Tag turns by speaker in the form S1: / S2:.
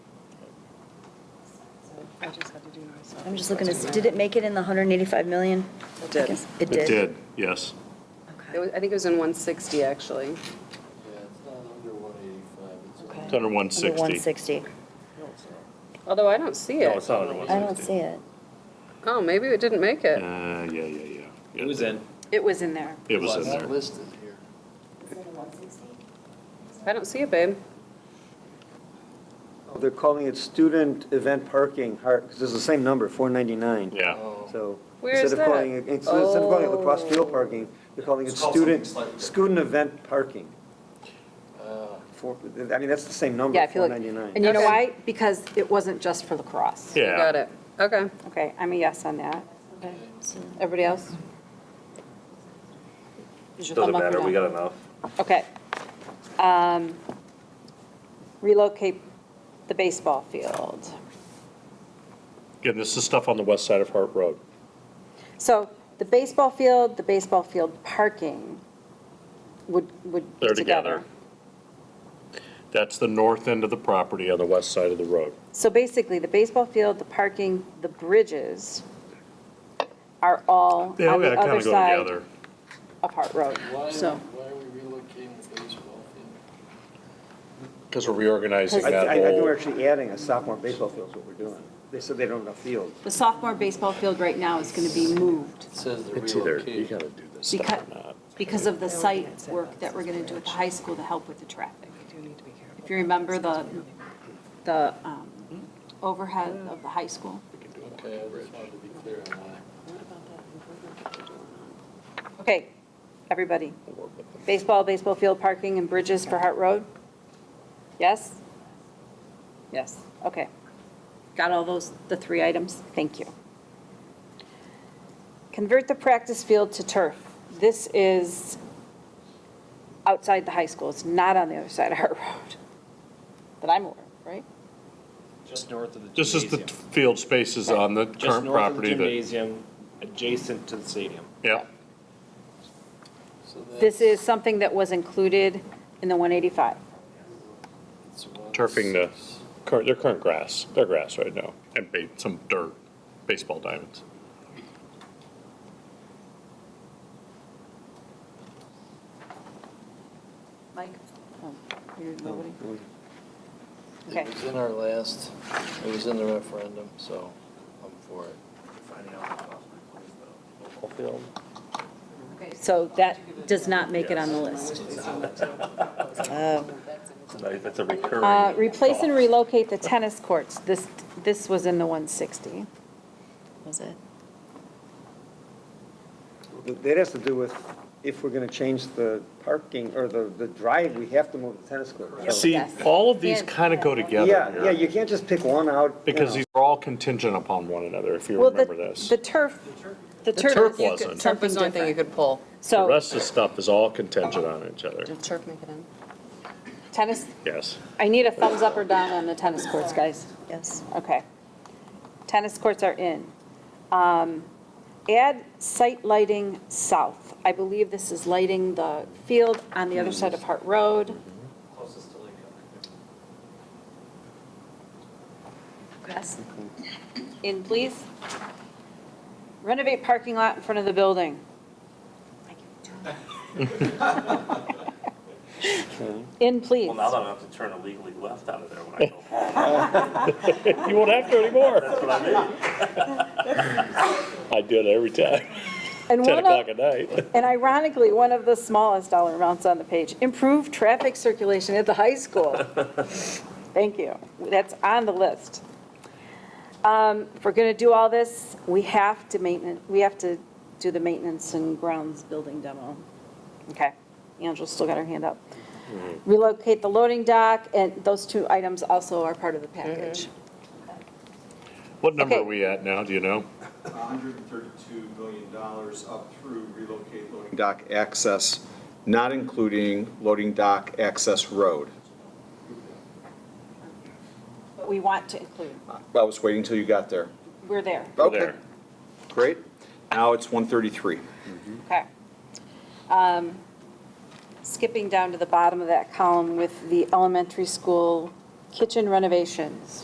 S1: I just had to do myself.
S2: I'm just looking to, see did it make it in the 185 million? I
S1: did.
S2: guess It did?
S3: It did, yes.
S1: It was- I think it was in 160, actually.
S4: Yeah, it's not under one eighty-five,
S2: Okay.
S4: it's.
S3: It's under 160.
S2: Under 160.
S1: Although I don't see
S3: No, it's
S1: it.
S3: not under
S2: I don't
S3: 160.
S2: see it.
S1: Oh, maybe it didn't make it.
S3: Uh, yeah, yeah, yeah.
S5: It was in.
S1: It was in there.
S3: It was in
S4: It's not
S3: there.
S4: listed here.
S1: I don't see it, babe.
S6: Oh, They're calling it student event parking, because it's the same number, 499.
S3: Yeah.
S4: Oh.
S6: So
S1: Where is
S6: instead of calling,
S1: that?
S6: it instead of calling it lacrosse
S1: Oh.
S6: field parking, they're calling it
S5: It's called something
S6: student,
S5: slightly different.
S6: student event parking.
S4: Uh,
S6: Four- I mean, that's the same number,
S7: Yeah, if you look, and
S6: 499.
S7: you know
S1: Okay.
S7: why? Because it wasn't just for lacrosse.
S3: Yeah.
S1: Got it. Okay.
S7: Okay, I'm a yes on that.
S2: Okay, so-
S7: Everybody else? Is your
S5: Doesn't
S7: thumb up or
S5: matter, we
S7: down?
S5: got enough.
S7: Okay. Um, Relocate the baseball field.
S3: Again, this is stuff on the west side of Hart Road.
S7: So the baseball field, the baseball field parking would, would be
S3: They're together. That's the north end of the property on the west side of the road.
S7: So basically, the baseball field, the parking, the bridges are all on
S3: Yeah,
S7: the
S3: that kind
S7: other
S3: of go
S7: side
S3: together.
S7: of Hart Road.
S4: Why,
S7: So,
S4: why are we relocating the baseball field?
S3: Because we're reorganizing
S6: I,
S3: that
S6: I I think we're
S3: whole,
S6: actually adding a sophomore baseball field is what we're doing. They said they don't have enough fields.
S7: the sophomore baseball field right now is going to be moved
S4: It says the
S3: it's either, you
S4: relocation.
S3: gotta do this
S7: because,
S3: stuff or not.
S7: because of the site work that we're going to do at the high school to help with the traffic.
S1: You do need to be careful.
S7: If you remember the, the um, overhead of the high school.
S3: E-
S4: Okay, I just wanted to be clear on why.
S7: Okay, everybody. Baseball, baseball field parking and bridges for Hart Road? Yes? Yes, okay. Got all those, the three items? Thank you. Convert the practice field to turf. This is outside the high school. It's not on the other side of Hart Road that I'm aware of, right?
S5: Just north of the
S3: This is the
S5: gymnasium.
S3: field spaces on the
S5: Just
S3: current
S5: north of the
S3: property that,
S5: gymnasium, adjacent to the stadium.
S3: yeah.
S4: So
S7: This
S4: that's-
S7: is something that was included in the 185.
S4: it's one
S3: Turfing the,
S4: six.
S3: current their current grass, their grass right now, and ba- some dirt, baseball diamonds.
S7: Mike? Oh, you're nobody? Okay.
S4: It was in our last, it was in the referendum, so I'm for it.
S7: Okay, So that does not make it on the list.
S5: That's a recurring.
S7: Uh, Replace and relocate the tennis courts. This, this was in the 160.
S2: Was it?
S6: That has to do with if we're going to change the parking or the, the drive, we have to move the tennis court. So-
S3: See,
S7: Yes.
S3: all of these
S7: And-
S3: kind of go together
S6: Yeah, yeah,
S3: here,
S6: you can't just pick one out. you
S3: because
S6: know.
S3: these are all contingent upon one another, if you
S7: Well,
S3: remember
S7: the,
S3: this.
S7: the turf, the
S3: The
S7: turf.
S3: turf
S7: you could-
S3: wasn't.
S1: Turf
S7: Something
S1: was the only thing you
S7: different.
S1: could pull.
S3: The
S7: So
S3: rest of the stuff is all contingent on each other,
S1: Did turf make it in?
S7: tennis,
S3: yes.
S7: I need a thumbs up or down on the tennis courts, guys.
S2: Yes.
S7: Okay. Tennis courts are in. Um, Add site lighting south. I believe this is lighting the field on the other side of Hart Road.
S5: Closest to Lake County.
S7: Yes. In, please. Renovate parking lot in front of the building. In, please.
S8: Well, now that I have to turn illegally left out of there when I go home,
S3: You won't have to anymore.
S8: that's what I mean.
S3: I do it every time,
S7: And
S3: ten
S7: one of-
S3: o'clock at night.
S7: And ironically, one of the smallest dollar amounts on the page, improve traffic circulation at the high school. Thank you. That's on the list. Um, If we're going to do all this, we have to maintain, we have to do the maintenance and grounds building demo. Okay. Angela's still got her hand up. Relocate the loading dock, and those two items also are part of the package.
S3: What number
S7: Okay.
S3: are we at now, do you know?
S9: $132 million up through relocate loading dock access, not including loading dock access road.
S7: But we want to include,
S9: I was waiting till you got there.
S7: we're there.
S9: Okay,
S3: there.
S9: great. Now it's 133.
S7: Okay. Um, Skipping down to the bottom of that column with the elementary school kitchen renovations.